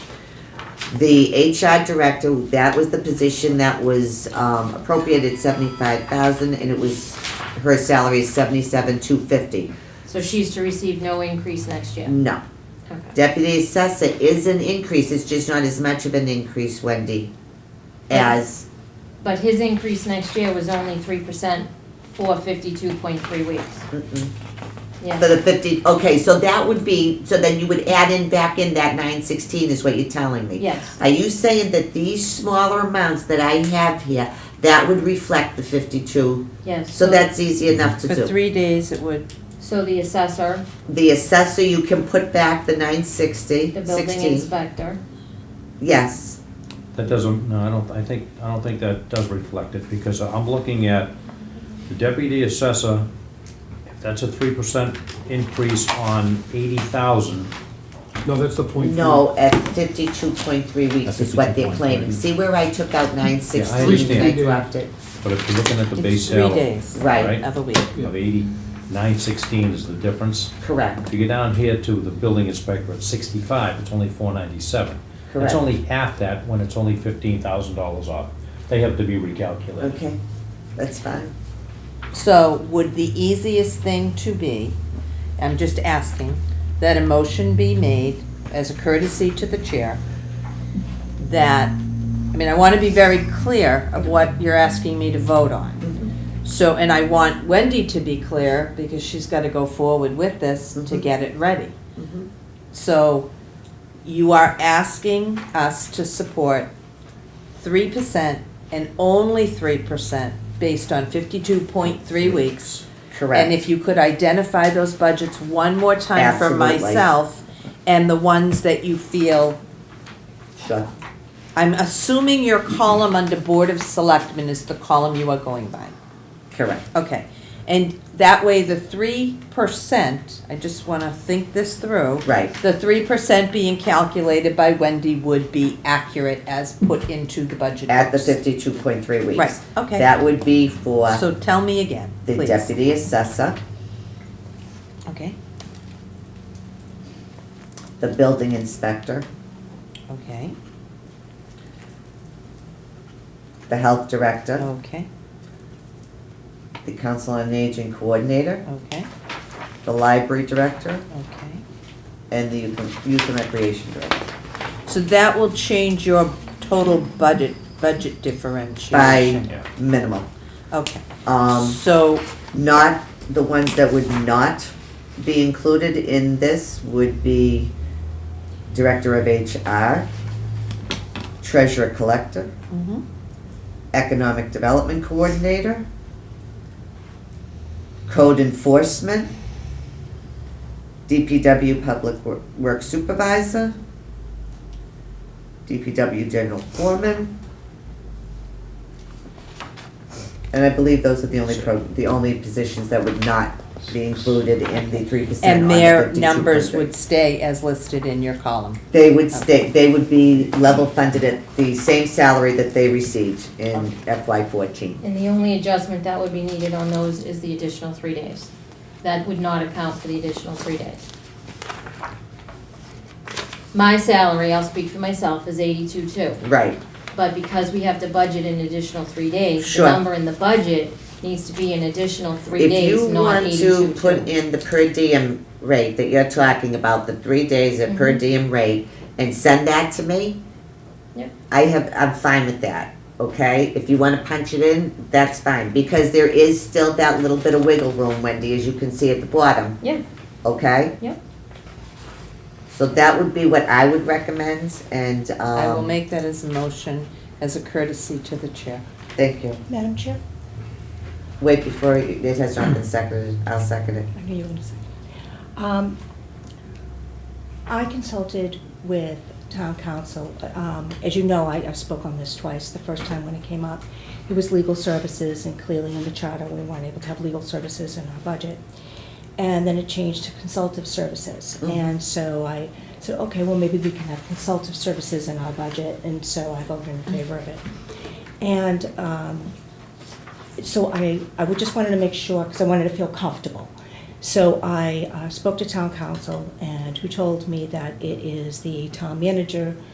The HR director, that was the position that was um, appropriated seventy-five thousand, and it was, her salary is seventy-seven, two fifty. So she's to receive no increase next year? No. Okay. Deputy assessor is an increase, it's just not as much of an increase, Wendy, as, But his increase next year was only three percent for fifty-two point three weeks. mm-mm. For Yeah, the fifty, okay, so that would be, so then you would add in back in that nine sixteen is what you're telling me? yes, Are you saying that these smaller amounts that I have here, that would reflect the fifty-two? yes. So that's easy enough to For do. three days, it would, So the assessor, The assessor, you can put back the nine sixty, the building sixteen. inspector, Yes, That doesn't, no, I don't, I think, I don't think that does reflect it, because I'm looking at the deputy assessor, if that's a three percent increase on eighty thousand, No, that's the point. no, at fifty-two point three weeks At is what they're 52.3. claiming. See where I took out nine sixteen and I understand. dropped it? but if you're looking at the it's base three salary days Right, Right. of a week. of eighty-nine sixteen is the difference. correct, If you get down here to the building inspector at sixty-five, it's only four ninety-seven. It's Correct. only half that when it's only fifteen thousand dollars off. They have to be recalculated. okay, that's fine. So would the easiest thing to be, I'm just asking, that a motion be made as a courtesy to the chair that, I mean, I want to be very clear of what you're asking me to vote on. So, and I want Wendy to be clear because she's got to go forward with this to Mhm. get it ready. Mhm. So you are asking us to support three percent and only three percent based on fifty-two point three weeks. And Correct, if you could identify those budgets one more time for Absolutely. myself and the ones that you feel, sure. I'm assuming your column under Board of Selectmen is the column you are going by. Correct. Okay, and that way the three percent, I just wanna think this through. Right. The three percent being calculated by Wendy would be accurate as put into the budget. At the books. fifty-two point three weeks. Right, okay. That would be for So tell me again, the please. deputy assessor, Okay, the building inspector, okay, the health director, okay, the council on aging coordinator, okay, the library director, okay. and the youth youth and recreation director. So that will change your total budget, budget differentiation. By Yeah. minimal. Okay, Um, so, not, the ones that would not be included in this would be director of HR, treasurer collector, mhm, economic development coordinator, code enforcement, DPW public Wor- work supervisor, DPW general foreman. And I believe those are the only pro, the only positions that would not be included in the three percent and on the their 52%. numbers would stay as listed in your column. They would stay, they would be level funded at the same salary that they received in FY fourteen. and the only adjustment that would be needed on those is the additional three days. That would not account for the additional three days. My salary, I'll speak for myself, is eighty-two two. Right, But because we have to budget an additional three days, the Sure. number in the budget needs to be an additional three if you days, not want eighty-two to put in the per diem rate that you're talking about, the three days at Mm-hmm. per diem rate, and send that to me. Yep. I have, I'm fine with that, okay? If you wanna punch it in, that's fine, because there is still that little bit of wiggle room, Wendy, as you can see at the bottom, Yeah, okay? Yep. So that would be what I would recommend, and, um. I will make that as a motion, as a courtesy to the chair. Thank you. Madam Chair, Wait, before, it it has not been seconded, I'll second it. I knew you were going to say. Um, I consulted with town council. Um, As you know, I I spoke on this twice. The first time when it came up, it was legal services, and clearly in the charter, we weren't able to have legal services in our budget. And then it changed to consultative services. Mhm. And so I said, okay, well, maybe we can have consultative services in our budget, and so I voted in favor of it. And um, so I, I would just wanted to make sure, because I wanted to feel comfortable. So I uh, spoke to town council and who told me that it is the town manager